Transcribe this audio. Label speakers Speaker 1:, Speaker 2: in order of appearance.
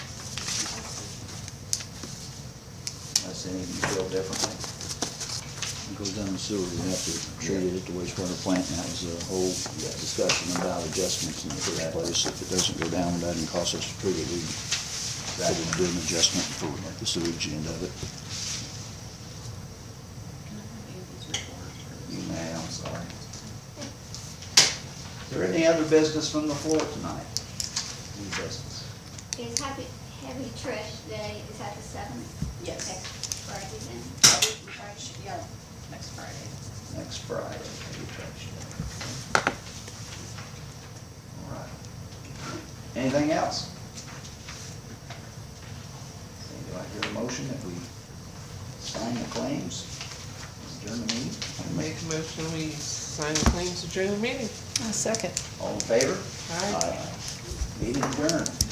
Speaker 1: sending you bill differently. It goes down the sewer, you have to treat it at the wastewater plant, and that was a whole discussion about adjustments in the first place. If it doesn't go down, that doesn't cost us a pretty, we could have done an adjustment for the sewage end of it. You may, I'm sorry. Is there any other business from the floor tonight? Any business?
Speaker 2: Is Happy, Happy Trash Day, is that the seventh?
Speaker 3: Yes.
Speaker 2: Friday then?
Speaker 3: Yeah, next Friday.
Speaker 1: Next Friday, maybe trash day. All right. Anything else? Okay, Do I hear a motion that we sign the claims? Adjourn the meeting?
Speaker 4: Make a motion, we sign the claims during the meeting.
Speaker 5: A second.
Speaker 1: All in favor?
Speaker 4: Aye.
Speaker 1: Meeting adjourned.